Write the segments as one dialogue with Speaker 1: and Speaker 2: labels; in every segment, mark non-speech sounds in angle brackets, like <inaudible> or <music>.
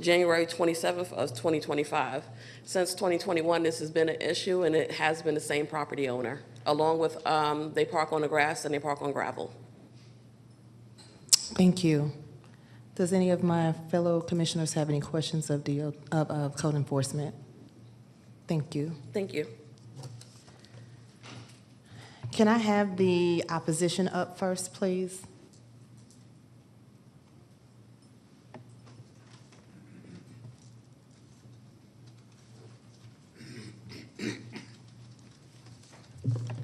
Speaker 1: January 27th of 2025. Since 2021, this has been an issue, and it has been the same property owner, along with, um, they park on the grass and they park on gravel.
Speaker 2: Thank you. Does any of my fellow commissioners have any questions of the, of, of code enforcement? Thank you.
Speaker 1: Thank you.
Speaker 2: Can I have the opposition up first, please?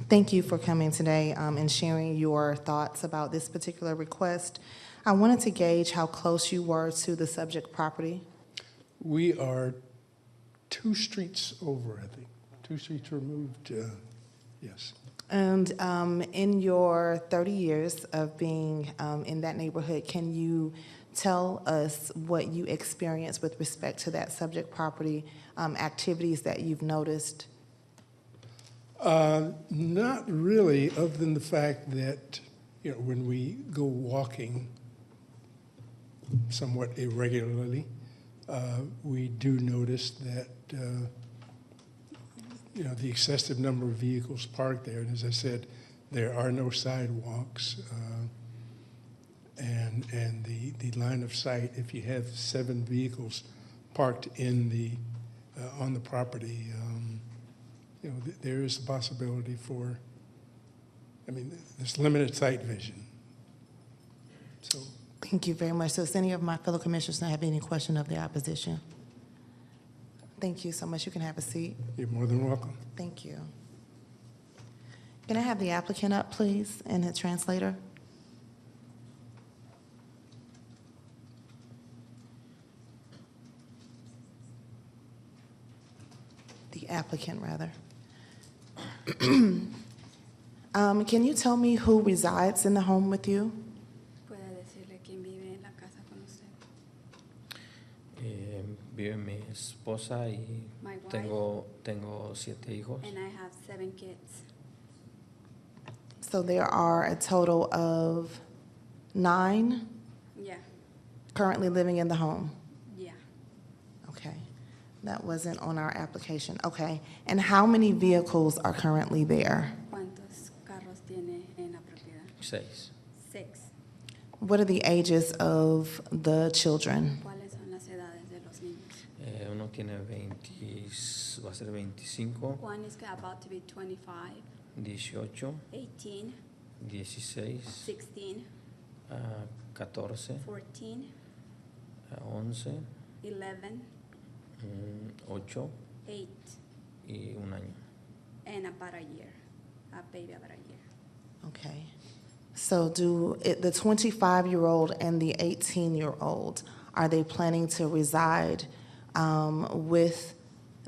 Speaker 2: Thank you for coming today um, and sharing your thoughts about this particular request. I wanted to gauge how close you were to the subject property.
Speaker 3: We are two streets over, I think, two streets removed, uh, yes.
Speaker 2: And um, in your 30 years of being um, in that neighborhood, can you tell us what you experienced with respect to that subject property, um, activities that you've noticed?
Speaker 3: Uh, Not really, other than the fact that, you know, when we go walking somewhat irregularly, uh, we do notice that, uh, you know, the excessive number of vehicles parked there. And as I said, there are no sidewalks. uh, And, and the, the line of sight, if you have seven vehicles parked in the, uh, on the property, um, you know, th- there is the possibility for, I mean, th- there's limited sight vision. So,
Speaker 2: Thank you very much. So does any of my fellow commissioners not have any question of the opposition? Thank you so much. You can have a seat.
Speaker 3: you're more than welcome.
Speaker 2: Thank you. Can I have the applicant up, please, and the translator? The applicant, rather. <clears throat> Um, Can you tell me who resides in the home with you?
Speaker 4: pueda decirle quién vive en la casa con usted.
Speaker 5: Eh, vive mi esposa y
Speaker 4: My wife.
Speaker 5: tengo, tengo siete hijos.
Speaker 4: And I have seven kids.
Speaker 2: So there are a total of nine
Speaker 4: Yeah,
Speaker 2: currently living in the home?
Speaker 4: yeah.
Speaker 2: Okay, that wasn't on our application, okay. And how many vehicles are currently there?
Speaker 4: ¿Cuántos carros tiene en la propiedad?
Speaker 5: Seis.
Speaker 4: Six.
Speaker 2: What are the ages of the children?
Speaker 4: ¿Cuáles son las edades de los niños?
Speaker 5: Eh, uno tiene 20, va a ser 25,
Speaker 4: One is about to be 25,
Speaker 5: 18,
Speaker 4: 18,
Speaker 5: 16,
Speaker 4: 16,
Speaker 5: ah, 14,
Speaker 4: 14,
Speaker 5: ah, 11,
Speaker 4: 11,
Speaker 5: mm, 8
Speaker 4: 8,
Speaker 5: y un año.
Speaker 4: and about a year. A baby about a year.
Speaker 2: Okay, so do, it- the 25-year-old and the 18-year-old, are they planning to reside um, with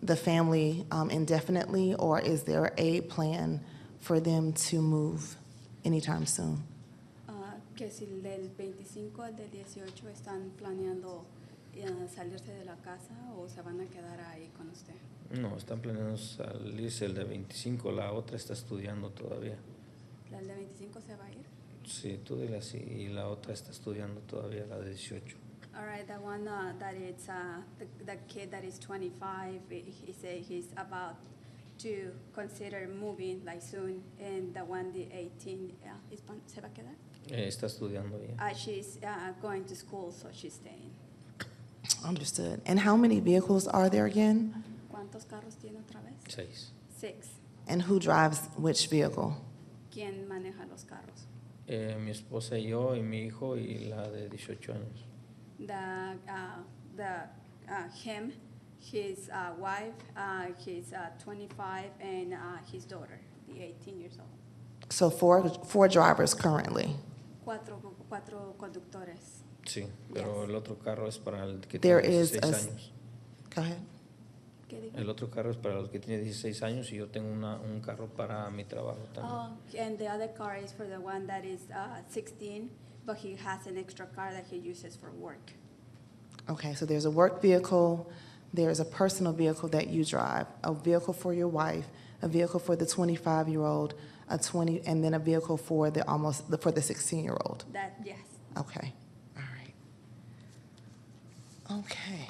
Speaker 2: the family um, indefinitely? Or is there a plan for them to move anytime soon?
Speaker 4: Ah, que si del 25 al del 18 están planeando eh, salirse de la casa o se van a quedar ahí con usted.
Speaker 5: No, están planeando salirse el de 25, la otra está estudiando todavía.
Speaker 4: ¿La de 25 se va a ir?
Speaker 5: Sí, tú dile así, y la otra está estudiando todavía, la de 18.
Speaker 4: All right, the one uh, that it's, uh, the, the kid that is 25, he he say he's about to consider moving like soon, and the one the 18, uh, is, pon- ¿se va a quedar?
Speaker 5: Eh, está estudiando ya.
Speaker 4: Uh, she's uh, going to school, so she's staying.
Speaker 2: Understood. And how many vehicles are there again?
Speaker 4: ¿Cuántos carros tiene otra vez?
Speaker 5: Seis.
Speaker 4: Six.
Speaker 2: And who drives which vehicle?
Speaker 4: ¿Quién maneja los carros?
Speaker 5: Eh, mi esposa y yo, y mi hijo, y la de 18 años.
Speaker 4: The, uh, the, uh, him, his uh, wife, uh, his uh, 25, and uh, his daughter, the 18 years old.
Speaker 2: So four, four drivers currently.
Speaker 4: Cuatro, cuatro conductores.
Speaker 5: Sí, pero
Speaker 4: Yes.
Speaker 5: el otro carro es para el que
Speaker 2: There
Speaker 5: tiene
Speaker 2: is a
Speaker 5: 16
Speaker 2: s-
Speaker 5: años.
Speaker 2: Go ahead.
Speaker 4: ¿Qué dijo?
Speaker 5: El otro carro es para el que tiene 16 años y yo tengo una, un carro para mi trabajo también.
Speaker 4: Oh, and the other car is for the one that is uh, 16, but he has an extra car that he uses for work.
Speaker 2: Okay, so there's a work vehicle, there's a personal vehicle that you drive, a vehicle for your wife, a vehicle for the 25-year-old, a 20, and then a vehicle for the almost, for the 16-year-old.
Speaker 4: That, yes.
Speaker 2: Okay, all right. Okay.